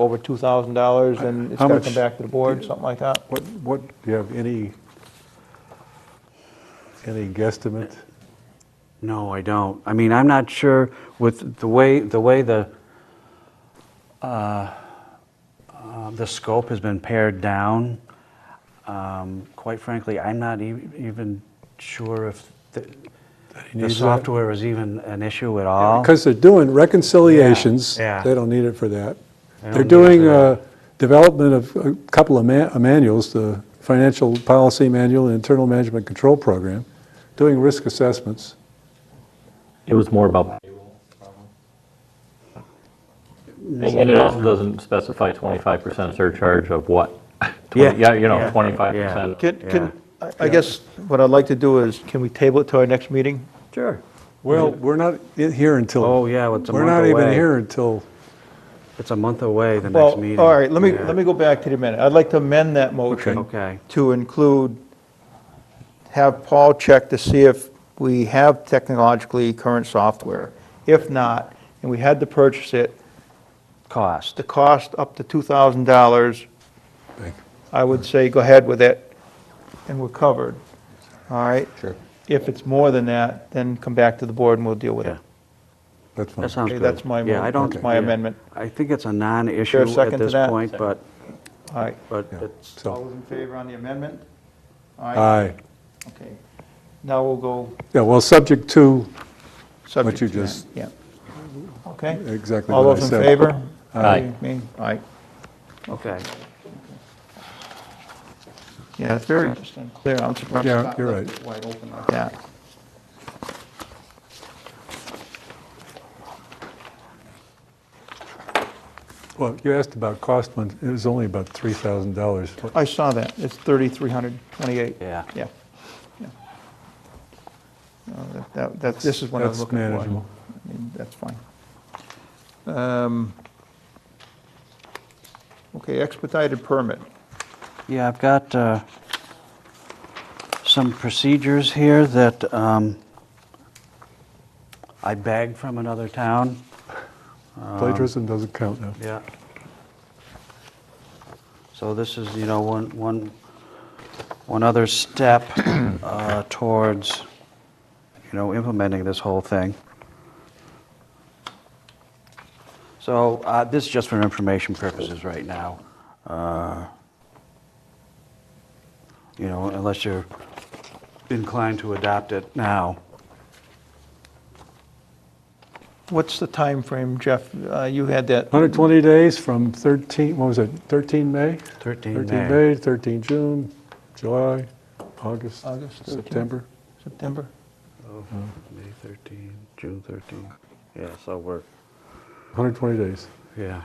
over $2,000 and it's got How to much- come back to the board, something like that. What, what, do you have any, any guesstimate? No, I don't. I mean, I'm not sure with the way, the way the, uh, uh, the scope has been pared down. um, Quite frankly, I'm not e- even sure if the- the needs that? software is even an issue at all. Because they're doing reconciliations. Yeah, yeah. They don't need it for that. They They're don't need it doing for uh, that. development of a couple of ma- uh, manuals, the Financial Policy Manual and Internal Management Control Program, doing risk assessments. It was more about. And it also doesn't specify twenty-five percent surcharge of what? Yeah. Yeah, you know, Yeah. twenty-five percent. Can, can, I- I Yeah. guess what I'd like to do is, can we table it to our next meeting? Sure. Well, we're not i- here until. Oh, yeah, well, it's a month We're away. not even here until, It's a month away, the next Well, meeting. all right, let me, Yeah. let me go back to the minute. I'd like to amend that motion Okay. to include, have Paul check to see if we have technologically current software. If not, and we had to purchase it, Cost. the cost up to $2,000, Thank I would say go ahead with it, and we're covered, all right? Sure. If it's more than that, then come back to the board and we'll deal with Yeah. it. that's fine. That sounds Okay, good. that's my Yeah, mo- I don't- that's my yeah. amendment. I think it's a non-issue Is there a second at to this that? point, but, All right. but Yeah. it's. So- Uh, All those in favor on the amendment? Aye. Okay. Now we'll go Yeah, well, subject to, subject you to that. just- Yeah. Okay. exactly All what I those in said. favor? Aye. Me? Aye. Okay. Yeah, it's very just unclear. I'm surprised. Yeah, it's not you're left right. it Wide open like that. well, you asked about cost, one. it was only about $3,000. What- I saw that. It's 3,328. Yeah. Yeah. Yeah. No, that- that- That, this is what I was That's looking for. manageable. I mean, That's fine. Um, Okay, expedited permit. Yeah, I've got uh, some procedures here that um, I bagged from another town. Uh-huh. Plagiarism doesn't count now. Yeah. So this is, you know, one, one, one other step uh, towards, you know, implementing this whole thing. So uh, this is just for information purposes right now. Uh, You know, unless you're inclined to adopt it now. What's the time frame, Jeff? Uh, You had that. 120 days from 13, what was it, 13 May? 13 May. 13 May, 13 June, July, August, August, 13. September. September? May 13, June 13. Yeah, so we're, 120 days. yeah.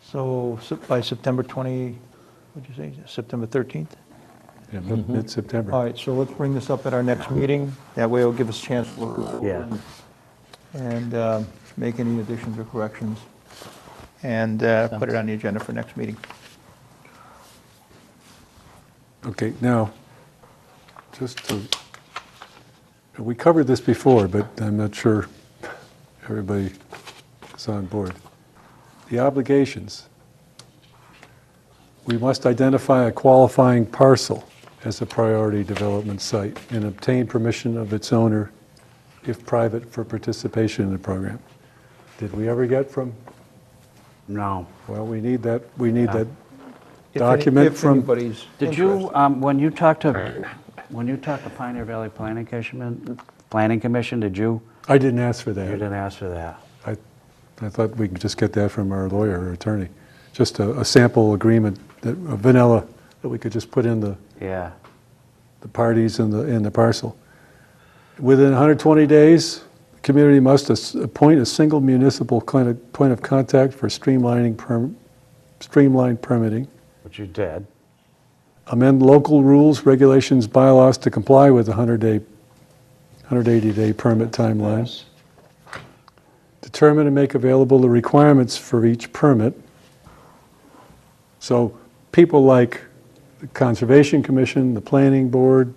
So Sep- by September 20, what'd you say, September 13th? Yeah, mid- Mid-September. Mm-hmm. All right, so let's bring this up at our next meeting. That way it'll give us a chance to look over Yeah. and um, make any additions or corrections, and uh, put it on the agenda for next meeting. Okay, now, just to, we covered this before, but I'm not sure everybody is on board. The obligations. We must identify a qualifying parcel as a priority development site and obtain permission of its owner, if private, for participation in the program. Did we ever get from, No. well, we need that, we need that If any- document from. If anybody's Did you, interested. um, when you talked to, when you talked to Pioneer Valley Planning Commission, Planning Commission, did you, I didn't ask for you that. didn't ask for that? I, I thought we could just get that from our lawyer or attorney, just a, a sample agreement, that, a vanilla, that we could just put in the, Yeah, the parties in the, in the parcel. Within 120 days, the community must as- appoint a single municipal kind of- point of contact for streamlining, perm- streamlined permitting, but you did. amend local rules, regulations, bylaws to comply with the 100-day, 180-day permit timeline. determine and make available the requirements for each permit. So people like the Conservation Commission, the Planning Board,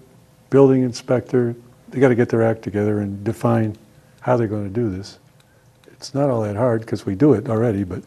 Building Inspector, they got to get their act together and define how they're going to do this. It's not all that hard because we do it already, but